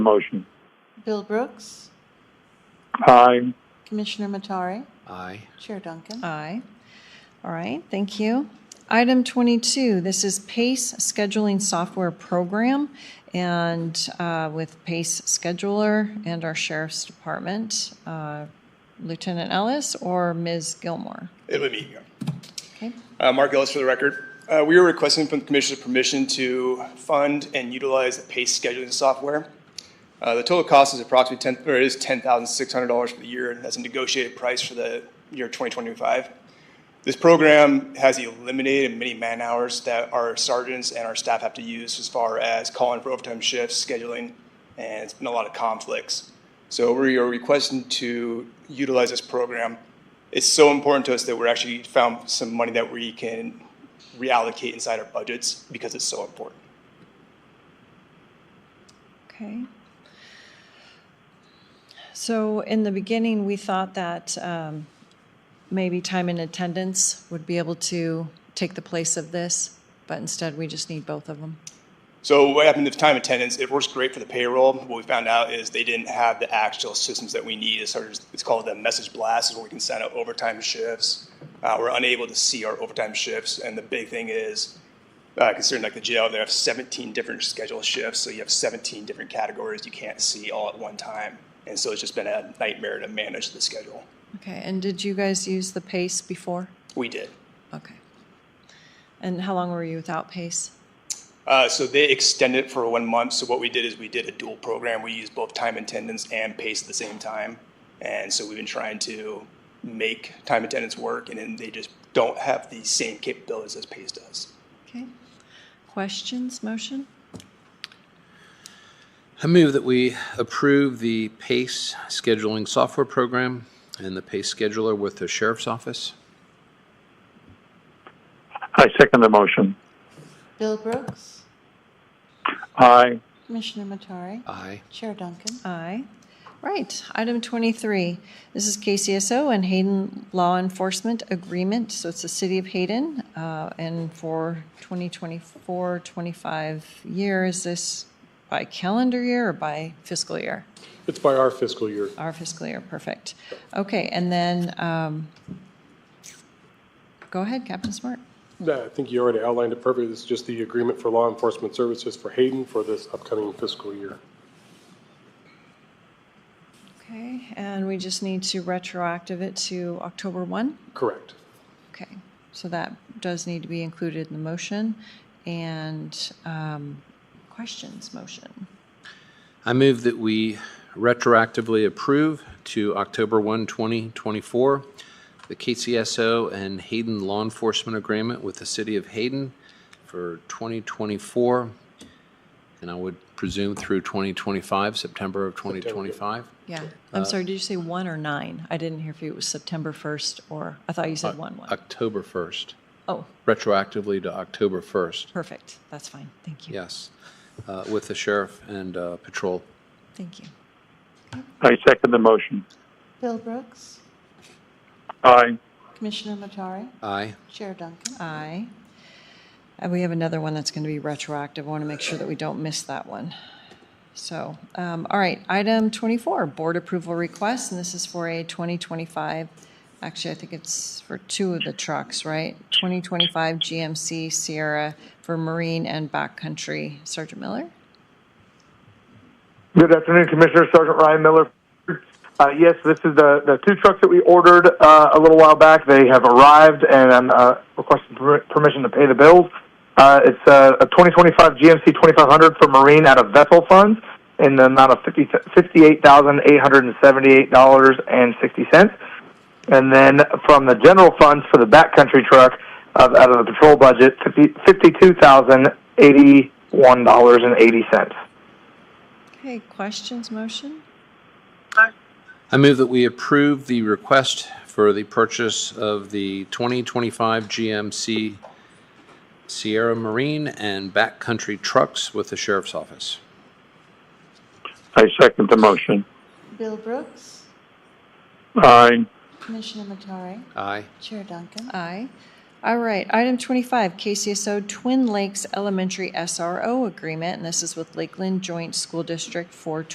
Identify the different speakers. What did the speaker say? Speaker 1: Motion.
Speaker 2: Bill Brooks,
Speaker 1: Aye.
Speaker 2: Commissioner Matari,
Speaker 3: Aye.
Speaker 2: Chair Duncan.
Speaker 4: Aye. All right, thank you. Item 22, this is PACE Scheduling Software Program, and uh, with PACE Scheduler and our Sheriff's Department, uh, Lieutenant Ellis or Ms. Gilmore?
Speaker 5: It would be.
Speaker 4: Okay,
Speaker 5: Uh, Mark Ellis for the record. Uh, we are requesting from the Commissioner's permission to fund and utilize the PACE scheduling software. Uh, the total cost is approximately ten, or is ten thousand six hundred dollars for the year, and that's a negotiated price for the year twenty twenty-five. This program has eliminated many man-hours that our sergeants and our staff have to use as far as calling for overtime shifts, scheduling, and it's been a lot of conflicts. So we are requesting to utilize this program. It's so important to us that we're actually found some money that we can reallocate inside our budgets because it's so important.
Speaker 4: okay. So in the beginning, we thought that um, maybe time and attendance would be able to take the place of this, but instead, we just need both of them.
Speaker 5: So what happened with time attendance, it works great for the payroll. What we found out is they didn't have the actual systems that we need. It's, sort of, it's called the message blast, is where we can send out overtime shifts. Uh, we're unable to see our overtime shifts. And the big thing is, uh, considering like the jail, they have 17 different schedule shifts. So you have 17 different categories you can't see all at one time. And so it's just been a nightmare to manage the schedule.
Speaker 4: Okay, and did you guys use the PACE before?
Speaker 5: We did.
Speaker 4: Okay. And how long were you without PACE?
Speaker 5: Uh, so they extended it for one month. So what we did is we did a dual program. We used both time attendance and pace at the same time. And so we've been trying to make time attendance work, and then they just don't have the same capabilities as pace does.
Speaker 4: Okay. Questions, motion?
Speaker 3: I move that we approve the PACE scheduling software program and the PACE scheduler with the sheriff's office.
Speaker 1: I second the motion.
Speaker 2: Bill Brooks,
Speaker 1: Aye.
Speaker 2: Commissioner Matari,
Speaker 3: Aye.
Speaker 2: Chair Duncan.
Speaker 4: Aye. Right, item 23. This is KCSO and Hayden Law Enforcement Agreement, so it's the City of Hayden. uh, And for 2024, 25 year, is this by calendar year or by fiscal year?
Speaker 6: It's by our fiscal year.
Speaker 4: Our fiscal year, perfect. Okay, and then, um, go ahead, Captain Smart.
Speaker 6: No, I think you already outlined it perfectly. This is just the agreement for law enforcement services for Hayden for this upcoming fiscal year.
Speaker 4: Okay, and we just need to retroactive it to October 1?
Speaker 6: Correct.
Speaker 4: Okay, so that does need to be included in the motion. And um, questions, motion?
Speaker 3: I move that we retroactively approve to October 1, 2024, the KCSO and Hayden Law Enforcement Agreement with the City of Hayden for 2024, and I would presume through 2025, September of 2025.
Speaker 4: Yeah, I'm sorry, did you say 1 or 9? I didn't hear if it was September 1st or, I thought you said 1,
Speaker 3: uh,
Speaker 4: 1.
Speaker 3: October 1st,
Speaker 4: Oh,
Speaker 3: retroactively to October 1st.
Speaker 4: perfect, that's fine, thank you.
Speaker 3: Yes, uh, with the sheriff and uh, patrol.
Speaker 4: Thank you.
Speaker 1: I second the motion.
Speaker 2: Bill Brooks,
Speaker 1: Aye.
Speaker 2: Commissioner Matari,
Speaker 3: Aye.
Speaker 2: Chair Duncan.
Speaker 4: Aye. Uh, We have another one that's going to be retroactive. I want to make sure that we don't miss that one. So, um, all right, item 24, board approval request, and this is for a 2025, actually, I think it's for two of the trucks, right? 2025 GMC Sierra for Marine and Backcountry. Sergeant Miller?
Speaker 7: Good afternoon, Commissioner Sergeant Ryan Miller. Uh, yes, this is the, the two trucks that we ordered uh, a little while back. They have arrived, and I'm uh, requesting per- permission to pay the bills. Uh, it's uh, a 2025 GMC 2500 for Marine out of vessel funds in the amount of 50, $58,878.60. And then from the general funds for the backcountry truck of, out of the patrol budget, 50, $52,081.80.
Speaker 4: Okay, questions, motion?
Speaker 3: I move that we approve the request for the purchase of the 2025 GMC Sierra Marine and backcountry trucks with the sheriff's office.
Speaker 1: I second the motion.
Speaker 2: Bill Brooks,
Speaker 7: Uh,
Speaker 1: Aye.
Speaker 2: Commissioner Matari,
Speaker 3: Aye.
Speaker 2: Chair Duncan.
Speaker 4: Aye. All right, item 25, KCSO Twin Lakes Elementary SRO Agreement, and this is with Lakeland Joint School District for